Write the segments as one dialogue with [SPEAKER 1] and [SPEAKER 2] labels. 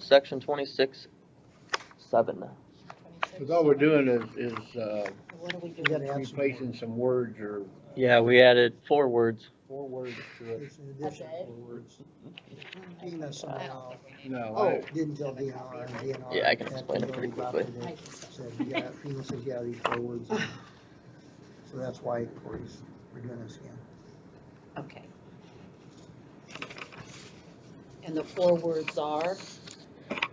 [SPEAKER 1] Section twenty-six, seven.
[SPEAKER 2] Because all we're doing is, is, uh,
[SPEAKER 3] What do we do?
[SPEAKER 4] We gotta add some
[SPEAKER 2] replacing some words or,
[SPEAKER 1] Yeah, we added four words.
[SPEAKER 4] four words to it. It's an addition
[SPEAKER 3] Okay.
[SPEAKER 4] of four words. Dina somehow
[SPEAKER 2] no, I,
[SPEAKER 4] oh, didn't tell DNR and DNR.
[SPEAKER 1] Yeah, I can
[SPEAKER 4] had
[SPEAKER 1] explain it pretty
[SPEAKER 4] already got
[SPEAKER 1] quickly.
[SPEAKER 4] to the- Said, yeah, Dina says, yeah, these four words. in." So that's why Cory's, we're doing this again.
[SPEAKER 3] Okay. And the four words are?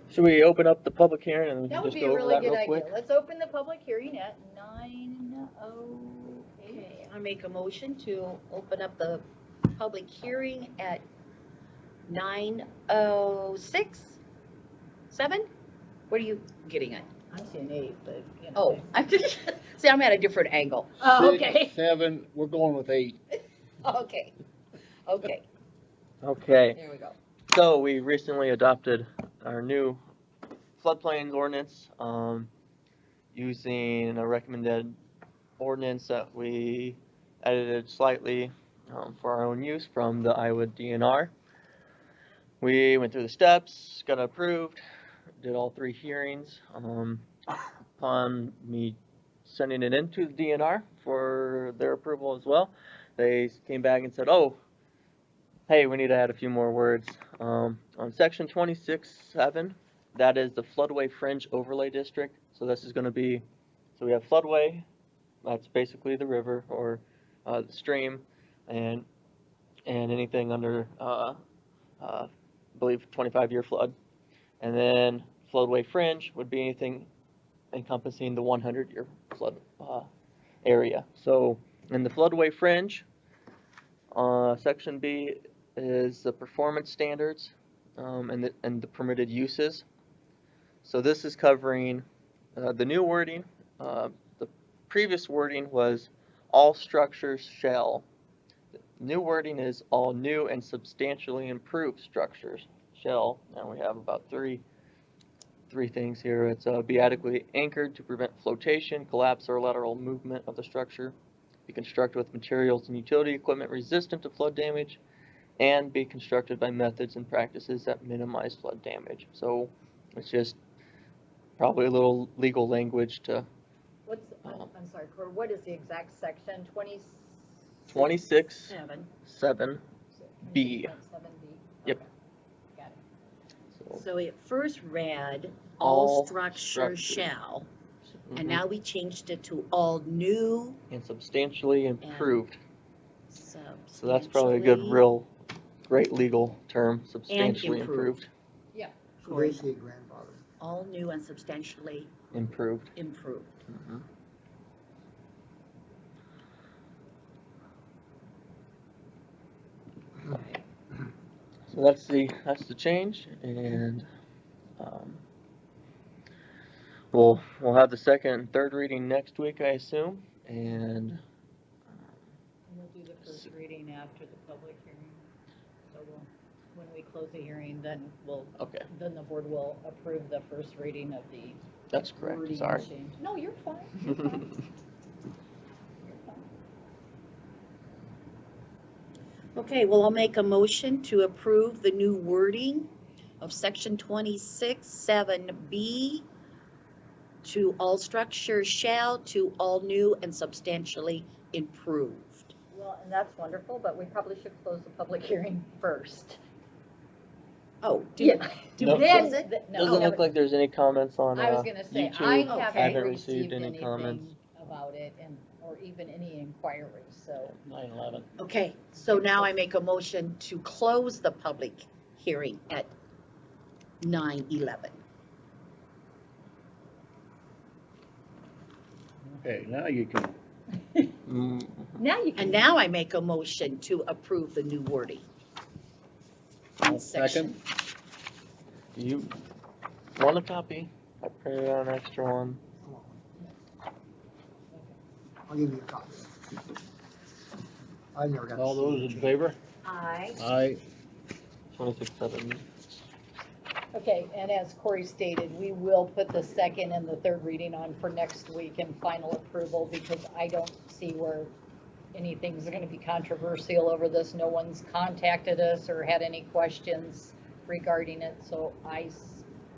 [SPEAKER 1] Should we open up the public hearing and
[SPEAKER 5] That would
[SPEAKER 1] just
[SPEAKER 5] be a
[SPEAKER 1] go over
[SPEAKER 5] really
[SPEAKER 1] that
[SPEAKER 5] good
[SPEAKER 1] real
[SPEAKER 5] idea.
[SPEAKER 1] quick?
[SPEAKER 5] Let's open the public hearing at nine oh eight.
[SPEAKER 3] I make a motion to open up the public hearing at nine oh six, seven? What are you getting at?
[SPEAKER 5] I'm seeing eight, but, you
[SPEAKER 3] Oh, I'm just, see, I'm at a different angle.
[SPEAKER 5] Oh, okay.
[SPEAKER 2] six, seven, we're going with eight.
[SPEAKER 3] Okay, okay,
[SPEAKER 1] Okay,
[SPEAKER 3] there we go.
[SPEAKER 1] so we recently adopted our new floodplains ordinance, um, using a recommended ordinance that we edited slightly, um, for our own use from the Iowa DNR. We went through the steps, got approved, did all three hearings, um, upon me sending it into the DNR for their approval as well. They came back and said, oh, hey, we need to add a few more words. Um, on section twenty-six seven, that is the floodway fringe overlay district, so this is gonna be, so we have floodway, that's basically the river or, uh, the stream, and, and anything under, uh, uh, I believe twenty-five year flood. And then floodway fringe would be anything encompassing the one hundred year flood, uh, area. So, in the floodway fringe, uh, section B is the performance standards, um, and the, and the permitted uses. So this is covering, uh, the new wording, uh, the previous wording was all structures shall. New wording is all new and substantially improved structures shall, and we have about three, three things here. It's, uh, be adequately anchored to prevent flotation, collapse, or lateral movement of the structure be constructed with materials and utility equipment resistant to flood damage, and be constructed by methods and practices that minimize flood damage. So it's just probably a little legal language to
[SPEAKER 5] What's, I'm, I'm sorry, Cor, what is the exact section? Twenty?
[SPEAKER 1] twenty-six,
[SPEAKER 3] Seven.
[SPEAKER 1] seven. B.
[SPEAKER 5] Seven B.
[SPEAKER 1] Yep.
[SPEAKER 5] Okay.
[SPEAKER 1] So
[SPEAKER 6] So it first read,
[SPEAKER 1] All
[SPEAKER 6] all structures
[SPEAKER 1] structures.
[SPEAKER 6] shall, and
[SPEAKER 1] mhm.
[SPEAKER 6] now we changed it to all new
[SPEAKER 1] And substantially improved.
[SPEAKER 6] substantially.
[SPEAKER 1] So that's probably a good, real, great legal term, substantially improved,
[SPEAKER 6] improved.
[SPEAKER 4] So basically grandfather.
[SPEAKER 6] All new and substantially
[SPEAKER 1] improved.
[SPEAKER 6] improved.
[SPEAKER 1] Mhm. So that's the, that's the change, and, um, we'll, we'll have the second and third reading next week, I assume, and,
[SPEAKER 5] And we'll do the first reading after the public hearing. So we'll, when we close the hearing, then we'll,
[SPEAKER 1] okay,
[SPEAKER 5] then the board will approve the first reading of the
[SPEAKER 1] that's correct, sorry.
[SPEAKER 5] change. No, you're fine, you're fine. You're fine.
[SPEAKER 6] Okay, well, I'll make a motion to approve the new wording of section twenty-six, seven B to all structures shall, to all new and substantially improved.
[SPEAKER 5] Well, and that's wonderful, but we probably should close the public hearing first.
[SPEAKER 6] Oh, do
[SPEAKER 5] Yeah.
[SPEAKER 6] do
[SPEAKER 1] Nope.
[SPEAKER 6] that.
[SPEAKER 5] Then, th- no.
[SPEAKER 1] Doesn't look like there's any comments on,
[SPEAKER 5] I was
[SPEAKER 1] uh,
[SPEAKER 5] gonna say,
[SPEAKER 1] YouTube.
[SPEAKER 5] I
[SPEAKER 6] Okay.
[SPEAKER 5] haven't
[SPEAKER 1] Haven't
[SPEAKER 5] received
[SPEAKER 1] received any
[SPEAKER 5] anything
[SPEAKER 1] comments.
[SPEAKER 5] about it and, or even any inquiries, so.
[SPEAKER 1] nine eleven.
[SPEAKER 6] Okay, so now I make a motion to close the public hearing at nine eleven.
[SPEAKER 2] Okay, now you can,
[SPEAKER 1] Mm,
[SPEAKER 5] Now you
[SPEAKER 6] And now I make a motion to approve the new wording.
[SPEAKER 2] I'll
[SPEAKER 6] Section.
[SPEAKER 2] second,
[SPEAKER 1] Do you want a copy? I printed out an extra one.
[SPEAKER 4] Come on. I'll give you a copy. I never got. to
[SPEAKER 2] all
[SPEAKER 4] see
[SPEAKER 2] those
[SPEAKER 4] it.
[SPEAKER 2] in favor?
[SPEAKER 5] I.
[SPEAKER 2] Aye.
[SPEAKER 1] Twenty-six, seven.
[SPEAKER 5] Okay, and as Corey stated, we will put the second and the third reading on for next week and final approval because I don't see where anything's gonna be controversial over this. No one's contacted us or had any questions regarding it, so I